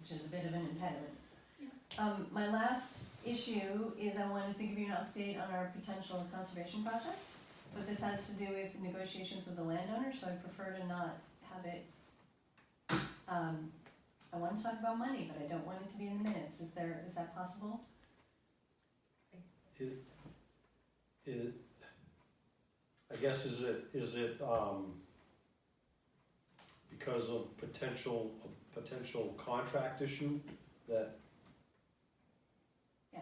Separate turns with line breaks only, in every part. which is a bit of an impediment.
Yeah.
Um, my last issue is I wanted to give you an update on our potential conservation project, but this has to do with negotiations with the landowner, so I prefer to not have it. Um, I wanna talk about money, but I don't want it to be in the minutes, is there, is that possible?
It, it, I guess is it, is it, um, because of potential, a potential contract issue that?
Yeah.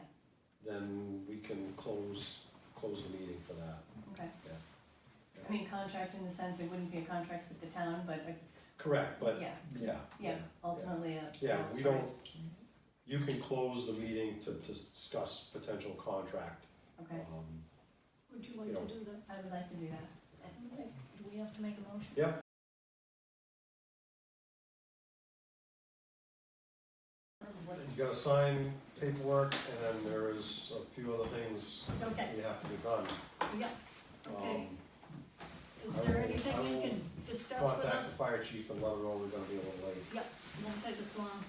Then we can close, close the meeting for that.
Okay.
Yeah.
I mean, contract in the sense it wouldn't be a contract with the town, but, uh,
Correct, but,
yeah,
yeah.
yeah, ultimately a
Yeah,
sales
we don't-
price.
You can close the meeting to, to discuss potential contract.
Okay,
um,
Would you like to do that?
I would like to do that.
Okay, do we have to make a motion?
Yep.
What-
You gotta sign paperwork, and then there is a few other things
Okay,
you have to be done.
yeah, okay.
Um,
Is
I
there
will-
anything
I
you
will
can discuss with
Contact the
us?
fire chief and let her know we're gonna be a little late.
Won't take us long.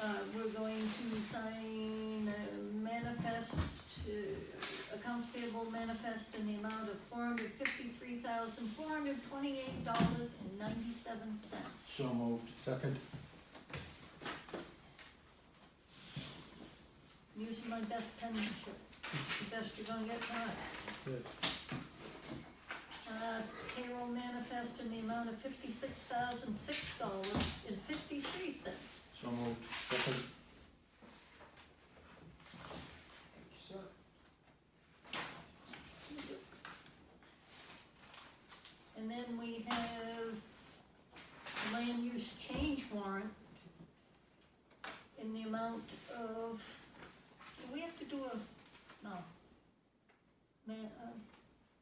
Uh, we're going to sign a manifest, uh, accounts payable manifest in the amount of four hundred fifty-three thousand, four hundred twenty-eight dollars and ninety-seven cents.
So moved. Second.
Using my best penmanship, the best you're gonna get from it. Uh, payroll manifest in the amount of fifty-six thousand, six dollars and fifty-three cents.
So moved. Second.
And then we have land use change warrant in the amount of, do we have to do a, no. Man, uh,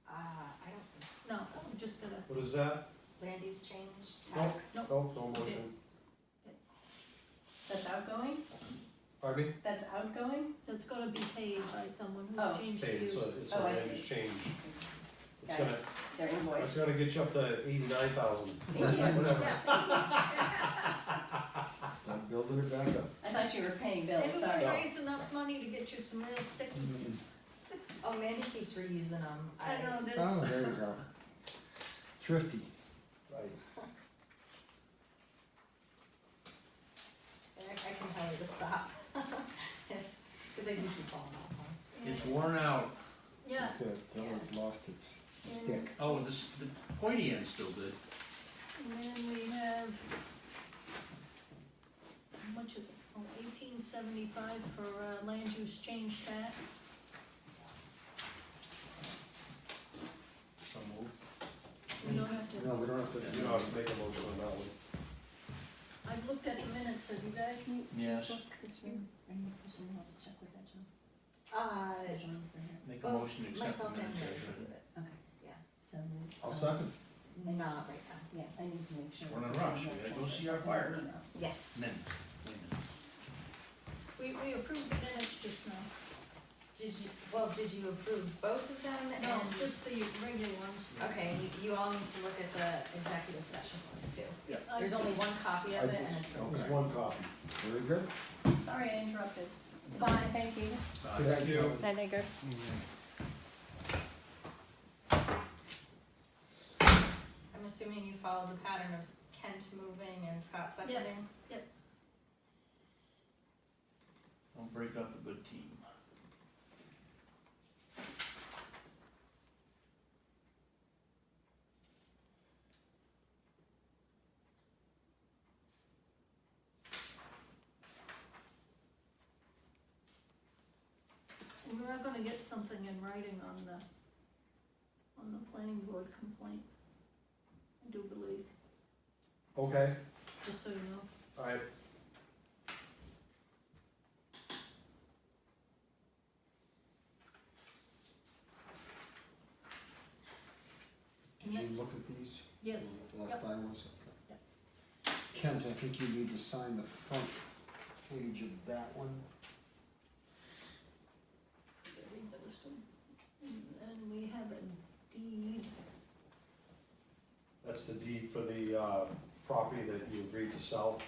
Uh, I don't think so.
no, I'm just gonna,
What is that?
Land use change,
Nope.
tax.
Nope, no motion.
That's outgoing?
Pardon me?
That's outgoing?
that's gonna be paid by someone
Oh.
who's changed
Hey,
use.
it's a, it's a
Oh, I
land
see.
use change.
It's,
It's
Got
gonna,
they're
it's
invoiced.
gonna get you up to eighty-nine thousand,
Thank you.
whatever.
Stop building it back up.
I thought you were paying bills,
Maybe we
sorry.
No.
raise enough money to get you some real stickies.
Oh, Mandy keeps reusing them.
I know this.
Oh, there you go. Thrifty.
Right.
I, I can tell her to stop. If, cause they do keep falling off, huh?
It's worn out.
Yeah,
That's it. That one's lost its stick.
Oh, and this, the pointy end's still good.
and then we have, how much is it? Oh, eighteen seventy-five for uh, land use change tax.
So moved.
We don't have to,
No, we don't have
You know
to.
how to make a motion on that one.
I've looked at the minutes, have you guys?
Yes.
Uh,
Make a
Well,
motion to accept the
myself and
minutes.
her.
as written.
So,
I'll second.
um,
Not right now.
Yeah, I need to make sure.
We're in a rush. We gotta go see our fire.
Yes.
Minute, wait a minute.
We, we approved the minutes just now,
Did you, well, did you approve both of them and?
no, just the regular ones.
Okay, you, you all need to look at the executive session ones too.
Yeah.
There's only one copy of
I
it
just-
and it's.
okay.
There's one copy.
Very good.
Sorry, I interrupted. Bye, thank you.
Bye.
Thank you.
Night, Edgar.
I'm assuming you followed the pattern of Kent moving and Scott seconding?
Don't break up a good team.
And we're not gonna get something in writing on the, on the planning board complaint, I do believe,
Okay,
just so you know.
alright.
Did you look at these?
Yes,
Last
Yep.
by ones? Kent, I think you need to sign the front page of that one.
read those two. And then we have a deed,
That's the deed for the, uh, property that you agreed to sell.